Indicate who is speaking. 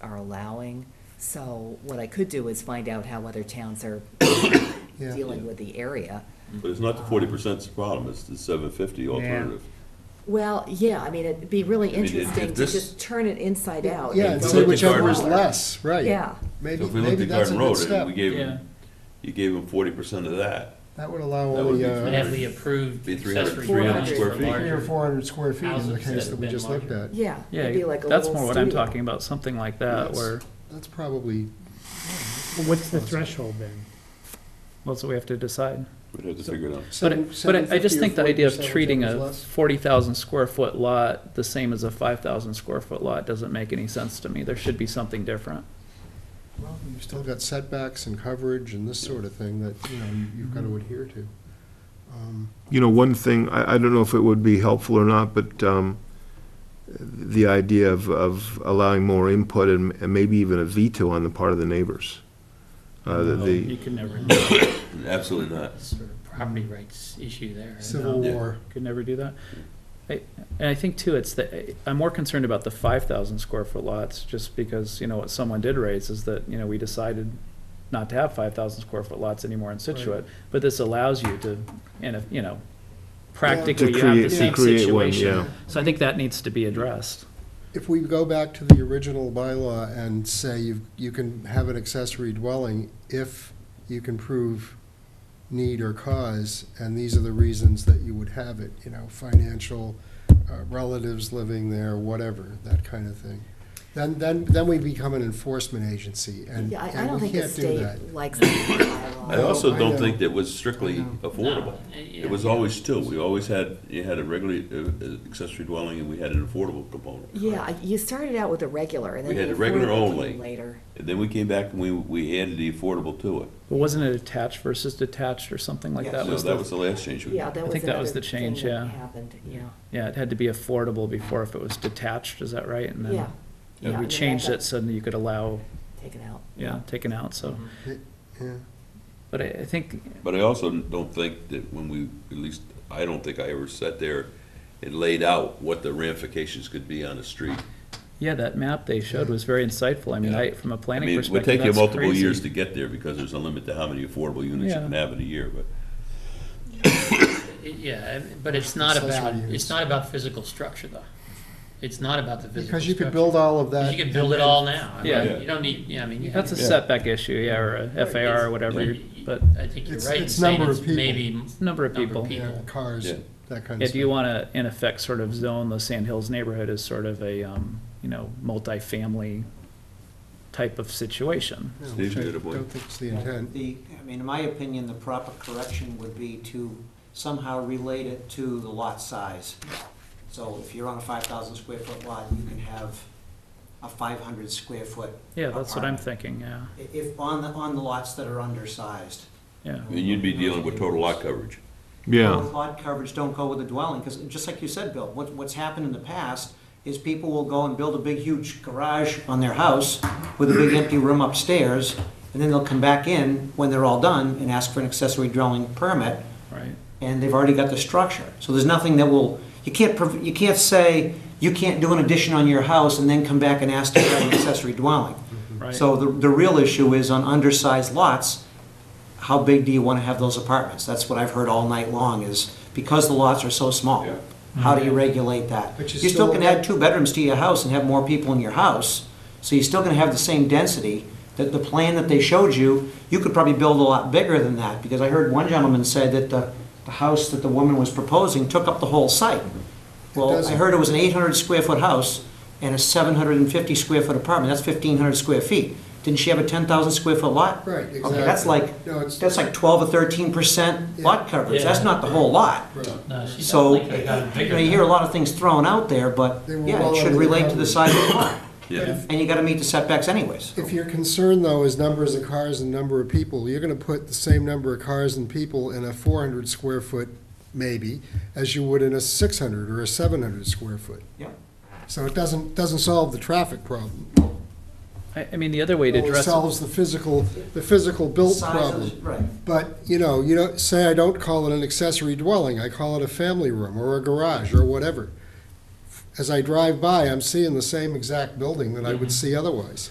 Speaker 1: are allowing. So what I could do is find out how other towns are
Speaker 2: Yeah.
Speaker 1: dealing with the area.
Speaker 3: But it's not the forty percent's problem, it's the seven fifty alternative.
Speaker 1: Well, yeah, I mean, it'd be really
Speaker 3: I mean, it-
Speaker 1: interesting
Speaker 3: it-
Speaker 1: to
Speaker 3: this-
Speaker 1: just turn it inside out.
Speaker 2: Yeah,
Speaker 3: If
Speaker 2: and
Speaker 3: we
Speaker 2: say
Speaker 3: looked at
Speaker 2: whichever
Speaker 3: Garden
Speaker 2: is
Speaker 3: Road-
Speaker 2: less, right.
Speaker 1: Yeah.
Speaker 3: So
Speaker 2: Maybe,
Speaker 3: if we looked
Speaker 2: maybe
Speaker 3: at
Speaker 2: that's a
Speaker 3: Garden
Speaker 2: good
Speaker 3: Road, and
Speaker 2: step.
Speaker 3: we gave
Speaker 4: Yeah.
Speaker 3: him, you gave him forty percent of that,
Speaker 2: That would allow
Speaker 3: That
Speaker 2: all
Speaker 3: would
Speaker 2: the,
Speaker 3: be
Speaker 4: And have the
Speaker 2: uh,
Speaker 4: approved
Speaker 3: Be 300
Speaker 4: accessory
Speaker 1: 400
Speaker 4: dwellings
Speaker 3: square
Speaker 4: for
Speaker 3: feet.
Speaker 2: three or
Speaker 4: larger.
Speaker 2: four hundred square feet is the
Speaker 4: houses that
Speaker 2: case
Speaker 4: have
Speaker 2: that we
Speaker 4: been
Speaker 2: just looked at.
Speaker 4: larger.
Speaker 1: Yeah, it'd be
Speaker 5: Yeah,
Speaker 1: like a
Speaker 5: that's
Speaker 1: little
Speaker 5: more what I'm
Speaker 1: studio.
Speaker 5: talking about, something like that,
Speaker 2: That's-
Speaker 5: where,
Speaker 2: That's probably,
Speaker 6: Well, What's the threshold then?
Speaker 5: well, so we have to decide.
Speaker 3: we'd have to figure it out.
Speaker 5: But,
Speaker 2: seven,
Speaker 5: it- but I- I just
Speaker 2: 750 or
Speaker 5: think the idea of
Speaker 2: 40%,
Speaker 5: treating
Speaker 2: whichever is
Speaker 5: a
Speaker 2: less.
Speaker 5: forty thousand square foot lot the same as a five thousand square foot lot doesn't make any sense to me. There should be something different.
Speaker 2: Well, You've still got setbacks and coverage and this sort of thing that, you know, you- you've got to adhere to. Um,
Speaker 7: You know, one thing, I, I don't know if it would be helpful or not, but um, the idea of, of allowing more input and and maybe even a veto on the part of the neighbors. Uh, the-
Speaker 4: Oh, You
Speaker 7: The,
Speaker 4: could never, do
Speaker 3: Absolutely not.
Speaker 4: that sort of property rights issue there.
Speaker 2: Civil
Speaker 3: Yeah.
Speaker 2: War.
Speaker 5: Could never do that. I- And I think too, it's the, I'm more concerned about the five thousand square foot lots, just because, you know, what someone did raise is that, you know, we decided not to have five thousand square foot lots anymore in Situate, but this allows you to, and if, you know, practically
Speaker 7: To
Speaker 5: you have the
Speaker 7: create- to
Speaker 5: same
Speaker 7: create one,
Speaker 5: situation.
Speaker 7: yeah.
Speaker 5: So I think that needs to be addressed.
Speaker 2: If we go back to the original bylaw and say you, you can have an accessory dwelling if you can prove need or cause, and these are the reasons that you would have it, you know, financial, uh, relatives living there, whatever, that kind of thing. Then, then, then we become an enforcement agency, and,
Speaker 1: Yeah, I, I don't
Speaker 2: and we
Speaker 1: think the
Speaker 2: can't do that.
Speaker 1: state likes that
Speaker 3: I
Speaker 1: bylaw.
Speaker 3: also
Speaker 2: I
Speaker 3: don't
Speaker 2: know.
Speaker 3: think that was strictly
Speaker 2: I know.
Speaker 4: Uh,
Speaker 3: affordable. It was always two, we always had, you had a regular uh, uh, accessory dwelling and we had an affordable component.
Speaker 1: Yeah, I- you started out with a regular and then.
Speaker 3: We had
Speaker 1: the
Speaker 3: the regular
Speaker 1: affordable
Speaker 3: only.
Speaker 1: came Later.
Speaker 3: And then we came back and we, we added the affordable to it.
Speaker 5: But wasn't it attached versus detached or something like that?
Speaker 3: So
Speaker 5: was
Speaker 3: that
Speaker 5: the-
Speaker 3: was the last change we
Speaker 1: Yeah,
Speaker 3: made.
Speaker 1: that was
Speaker 5: think that was
Speaker 1: another
Speaker 5: the change,
Speaker 1: thing that
Speaker 5: yeah.
Speaker 1: Happened, yeah.
Speaker 5: Yeah, it had to be affordable before if it was detached, is that right? And then
Speaker 1: Yeah. Yeah, and
Speaker 5: We
Speaker 1: then
Speaker 5: changed
Speaker 1: that
Speaker 5: it so that you could allow,
Speaker 1: got Taken out.
Speaker 5: yeah, taken out, so.
Speaker 1: Mm-hmm.
Speaker 2: Yeah.
Speaker 5: But I, I think,
Speaker 3: But I also don't think that when we, at least, I don't think I ever sat there and laid out what the ramifications could be on the street.
Speaker 5: yeah, that map they showed was very insightful. I mean, I, from a
Speaker 3: I
Speaker 5: planning
Speaker 3: mean, it would
Speaker 5: perspective,
Speaker 3: take you
Speaker 5: that's
Speaker 3: multiple
Speaker 5: crazy.
Speaker 3: years to get there because there's a limit to how many affordable units you
Speaker 5: Yeah.
Speaker 3: can have in a year, but
Speaker 4: It- Yeah, and- but it's not
Speaker 2: Accessory
Speaker 4: about,
Speaker 2: use.
Speaker 4: it's not about physical structure, though. It's not about the physical structure.
Speaker 2: Because you could build all of that.
Speaker 4: You could build it all now. I mean,
Speaker 5: Yeah.
Speaker 4: You don't need, yeah, I mean. you-
Speaker 5: That's a
Speaker 3: Yeah.
Speaker 5: setback issue, yeah, or a FAR or whatever,
Speaker 4: you-
Speaker 5: you're- but
Speaker 4: I think you're
Speaker 2: It's-
Speaker 4: right in
Speaker 2: it's
Speaker 4: saying
Speaker 2: number
Speaker 4: it's
Speaker 2: of people.
Speaker 4: maybe. m-
Speaker 5: number of people.
Speaker 2: Yeah, cars,
Speaker 3: Yeah.
Speaker 2: that kind
Speaker 5: Yeah,
Speaker 2: of stuff.
Speaker 5: do you want to, in effect, sort of zone the Sand Hills neighborhood as sort of a, um, you know, multifamily type of situation?
Speaker 2: No,
Speaker 3: Steve, you had a
Speaker 2: I
Speaker 3: point.
Speaker 2: don't think it's the
Speaker 8: Yeah,
Speaker 2: intent.
Speaker 8: The, I mean, in my opinion, the proper correction would be to somehow relate it to the lot size. So if you're on a five thousand square foot lot, you can have a five hundred square foot.
Speaker 5: Yeah, that's what I'm
Speaker 8: apartment.
Speaker 5: thinking, yeah,
Speaker 8: I- If, on the, on the lots that are undersized.
Speaker 5: yeah.
Speaker 3: and you'd be dealing with total lot coverage.
Speaker 7: yeah.
Speaker 8: Both Lot coverage, don't go with a dwelling, because just like you said, Bill, what, what's happened in the past is people will go and build a big huge garage on their house with a big empty room upstairs, and then they'll come back in when they're all done and ask for an accessory dwelling permit,
Speaker 5: Right,
Speaker 8: and they've already got the structure. So there's nothing that will, you can't, prov- you can't say, you can't do an addition on your house and then come back and ask to have an accessory dwelling.
Speaker 5: right.
Speaker 8: So the, the real issue is on undersized lots, how big do you want to have those apartments? That's what I've heard all night long is because the lots are so small,
Speaker 3: Yeah.
Speaker 8: how do you regulate that?
Speaker 2: But you
Speaker 8: You still
Speaker 2: still-
Speaker 8: can add two bedrooms to your house and have more people in your house, so you're still going to have the same density. That the plan that they showed you, you could probably build a lot bigger than that because I heard one gentleman said that the, the house that the woman was proposing took up the whole site. Well, I
Speaker 2: doesn't.
Speaker 8: heard it was an 800 square foot house and a 750 square foot apartment, that's 1,500 square feet. Didn't she have a 10,000 square foot lot?
Speaker 2: Right,
Speaker 8: Okay, that's
Speaker 2: exactly.
Speaker 8: like,
Speaker 2: No, it's-
Speaker 8: that's like 12 or 13 percent lot
Speaker 2: Yeah.
Speaker 8: coverage, that's not the whole lot.
Speaker 4: No, she
Speaker 8: So,
Speaker 4: definitely could've gotten
Speaker 8: you
Speaker 4: bigger
Speaker 8: know, you
Speaker 4: than
Speaker 8: hear a lot of things thrown out there, but,
Speaker 2: They were
Speaker 8: yeah,
Speaker 2: well
Speaker 8: it should
Speaker 2: under the
Speaker 8: relate to the
Speaker 2: coverage.
Speaker 8: size of the lot.
Speaker 3: Yeah,
Speaker 8: And you gotta meet the setbacks anyways.
Speaker 2: If your concern, though, is numbers of cars and number of people, you're gonna put the same number of cars and people in a four hundred square foot, maybe, as you would in a six hundred or a seven hundred square foot.
Speaker 8: Yep.
Speaker 2: So it doesn't, doesn't solve the traffic problem.
Speaker 5: I, I mean, the other way to
Speaker 2: It
Speaker 5: address it
Speaker 2: solves the physical, the physical built
Speaker 8: Size of the-
Speaker 2: problem.
Speaker 8: Right.
Speaker 2: But, you know, you don't, say I don't call it an accessory dwelling, I call it a family room or a garage or
Speaker 8: Mm-hmm.
Speaker 2: whatever. As I drive by, I'm seeing the same exact building that I would see otherwise.